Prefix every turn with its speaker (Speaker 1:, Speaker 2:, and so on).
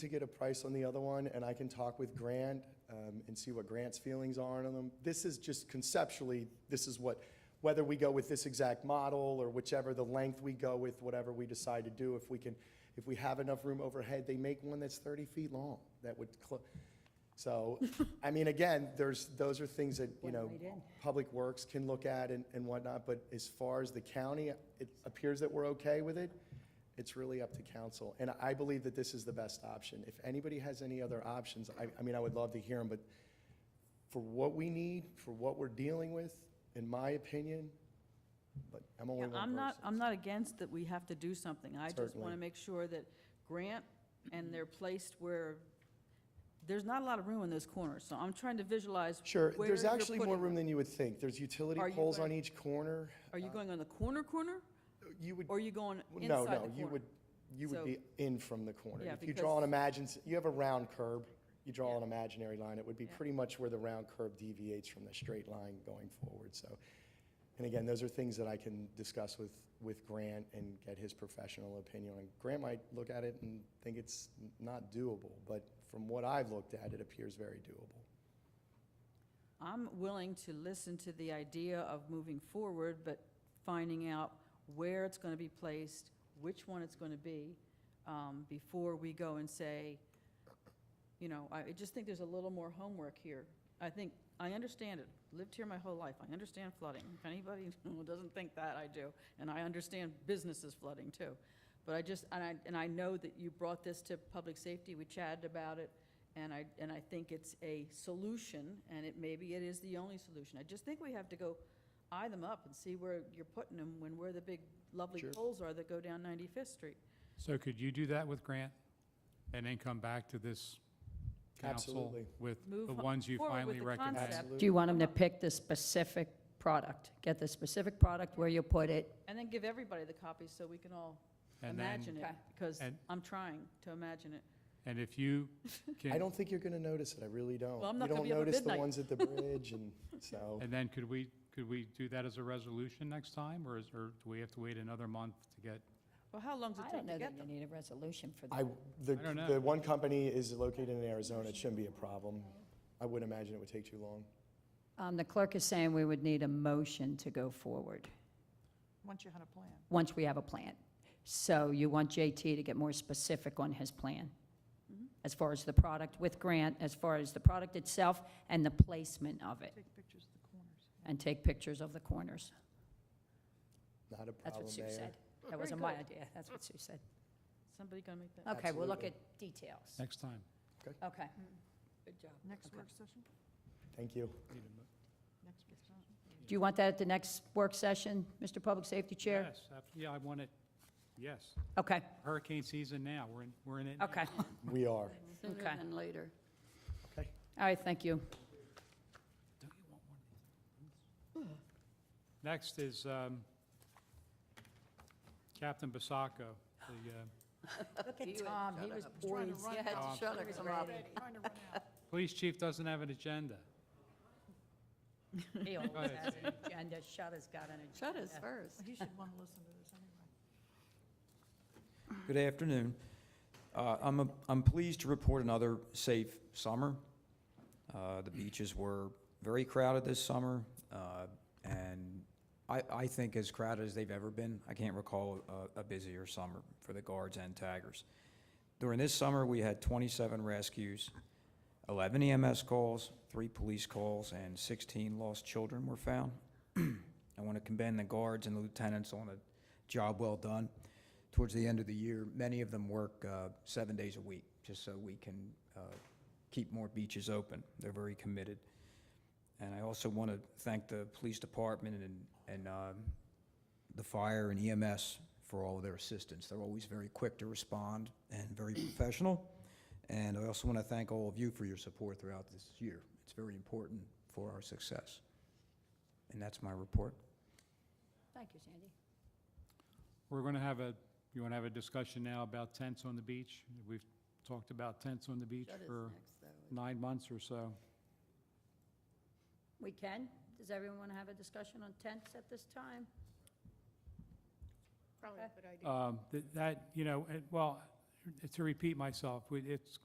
Speaker 1: to get a price on the other one, and I can talk with Grant um, and see what Grant's feelings are on them. This is just conceptually, this is what, whether we go with this exact model or whichever, the length we go with, whatever we decide to do, if we can, if we have enough room overhead, they make one that's 30 feet long, that would, clo- so, I mean, again, there's, those are things that, you
Speaker 2: One
Speaker 1: know,
Speaker 2: right in.
Speaker 1: Public Works can look at and and whatnot, but as far as the county, it appears that we're okay with it. It's really up to council, and I believe that this is the best option. If anybody has any other options, I, I mean, I would love to hear them, but for what we need, for what we're dealing with, in my opinion, but I'm
Speaker 2: Yeah,
Speaker 1: only one
Speaker 2: I'm not,
Speaker 1: person.
Speaker 2: I'm not against that we have to do something. I just want
Speaker 1: Certainly.
Speaker 2: to make sure that Grant and they're placed where, there's not a lot of room in those corners, so I'm trying to visualize.
Speaker 1: Sure,
Speaker 2: where
Speaker 1: there's
Speaker 2: you're
Speaker 1: actually more
Speaker 2: putting
Speaker 1: room
Speaker 2: them.
Speaker 1: than you would think. There's utility
Speaker 2: Are you
Speaker 1: poles
Speaker 2: gonna-
Speaker 1: on each corner.
Speaker 2: Are you going on the corner corner,
Speaker 1: You would
Speaker 2: or are you going
Speaker 1: Well,
Speaker 2: inside
Speaker 1: No,
Speaker 2: the corner?
Speaker 1: no, you would, you would
Speaker 2: So-
Speaker 1: be in from the corner.
Speaker 2: Yeah,
Speaker 1: If you draw an
Speaker 2: because-
Speaker 1: imagine, you have a round curb, you draw
Speaker 2: Yeah.
Speaker 1: an imaginary line, it would be
Speaker 2: Yeah.
Speaker 1: pretty much where the round curb deviates from the straight line going forward, so. And again, those are things that I can discuss with, with Grant and get his professional opinion on. Grant might look at it and think it's n- not doable, but from what I've looked at, it appears very doable.
Speaker 2: I'm willing to listen to the idea of moving forward, but finding out where it's going to be placed, which one it's going to be, um, before we go and say, you know, I I just think there's a little more homework here. I think, I understand it, lived here my whole life, I understand flooding. If anybody who doesn't think that, I do, and I understand businesses flooding too. But I just, and I, and I know that you brought this to public safety, we chatted about it, and I, and I think it's a solution, and it, maybe it is the only solution. I just think we have to go eye them up and see where you're putting them, when, where the big lovely
Speaker 1: Sure.
Speaker 2: poles are that go down 95th Street.
Speaker 3: So could you do that with Grant and then come back to this council
Speaker 1: Absolutely.
Speaker 3: with
Speaker 2: Move
Speaker 3: the
Speaker 2: ho-
Speaker 3: ones you
Speaker 2: forward with
Speaker 3: finally
Speaker 2: the
Speaker 3: recognize?
Speaker 2: concept.
Speaker 4: Do you want them to pick the specific product? Get the specific product where you put it?
Speaker 2: And then give everybody the copies so we can all
Speaker 3: And then,
Speaker 2: imagine it, because
Speaker 3: and-
Speaker 2: I'm trying to imagine it.
Speaker 3: and if you
Speaker 1: I
Speaker 3: can,
Speaker 1: don't think you're gonna notice it, I really don't.
Speaker 2: Well, I'm not
Speaker 1: You
Speaker 2: gonna
Speaker 1: don't
Speaker 2: be up at
Speaker 1: notice the
Speaker 2: midnight.
Speaker 1: ones at the bridge and, so.
Speaker 3: and then could we, could we do that as a resolution next time? Or is, or do we have to wait another month to get?
Speaker 2: Well, how long does
Speaker 4: I
Speaker 2: it
Speaker 4: don't
Speaker 2: take
Speaker 4: know
Speaker 2: to
Speaker 4: that
Speaker 2: get
Speaker 4: you
Speaker 2: them?
Speaker 4: need a resolution for
Speaker 1: I,
Speaker 4: that.
Speaker 1: the,
Speaker 3: I don't know.
Speaker 1: the one company is located in Arizona, it shouldn't be a problem. I wouldn't imagine it would take too long.
Speaker 4: Um, The clerk is saying we would need a motion to go forward,
Speaker 5: Once you had a plan.
Speaker 4: once we have a plan. So you want JT to get more specific on his plan, as far as the product with Grant, as far as the product itself and the placement of it,
Speaker 5: Take pictures of the corners.
Speaker 4: and take pictures of the corners.
Speaker 1: Not a
Speaker 4: That's
Speaker 1: problem,
Speaker 4: what Sue
Speaker 1: Mayor.
Speaker 4: said. That wasn't my idea, that's what Sue said.
Speaker 2: Somebody gonna make that?
Speaker 4: Okay, we'll look at
Speaker 1: Absolutely.
Speaker 4: details.
Speaker 3: Next time.
Speaker 4: Okay.
Speaker 2: Good job.
Speaker 5: Next
Speaker 4: Okay.
Speaker 5: work session?
Speaker 1: Thank you.
Speaker 3: Need a mo-
Speaker 5: Next work session?
Speaker 4: Do you want that at the next work session, Mr. Public Safety Chair?
Speaker 3: Yes, ab- yeah, I want it, yes.
Speaker 4: Okay,
Speaker 3: Hurricane season now, we're in, we're in it. now.
Speaker 4: okay.
Speaker 1: We are.
Speaker 4: Okay.
Speaker 2: Sooner than later.
Speaker 1: Okay.
Speaker 4: All right, thank you.
Speaker 3: Don't you want one of these? Next is um, Captain Basacco, the uh,
Speaker 4: Look at Tom, he was
Speaker 5: Trying to
Speaker 4: poised.
Speaker 5: run
Speaker 2: Yeah,
Speaker 3: Oh,
Speaker 5: out.
Speaker 2: shut it, come on.
Speaker 5: Trying to run out.
Speaker 3: police chief doesn't have an agenda.
Speaker 4: He always
Speaker 3: ahead,
Speaker 4: has an agenda, Shutter's got an agenda.
Speaker 6: Shut us first.
Speaker 5: You should want to listen to this anyway.
Speaker 7: Good afternoon. Uh, I'm, a- I'm pleased to report another safe summer. Uh, The beaches were very crowded this summer, uh, and I, I think as crowded as they've ever been. I can't recall a- a busier summer for the guards and taggers. During this summer, we had 27 rescues, 11 EMS calls, three police calls, and 16 lost children were found. I want to commend the guards and the lieutenants on a job well done towards the end of the year, many of them work uh, seven days a week, just so we can uh, keep more beaches open. They're very committed. And I also want to thank the police department and, and um, the fire and EMS for all of their assistance. They're always very quick to respond and very professional. And I also want to thank all of you for your support throughout this year. It's very important for our success. And that's my report.
Speaker 4: Thank you, Sandy.
Speaker 3: We're going to have a, you want to have a discussion now about tents on the beach? We've talked about tents on the beach
Speaker 6: Shut us
Speaker 3: for
Speaker 6: next, though.
Speaker 3: nine months or so.
Speaker 4: We can? Does everyone want to have a discussion on tents at this time?
Speaker 3: Um, th- That, you know, it- well, to repeat myself, we- it's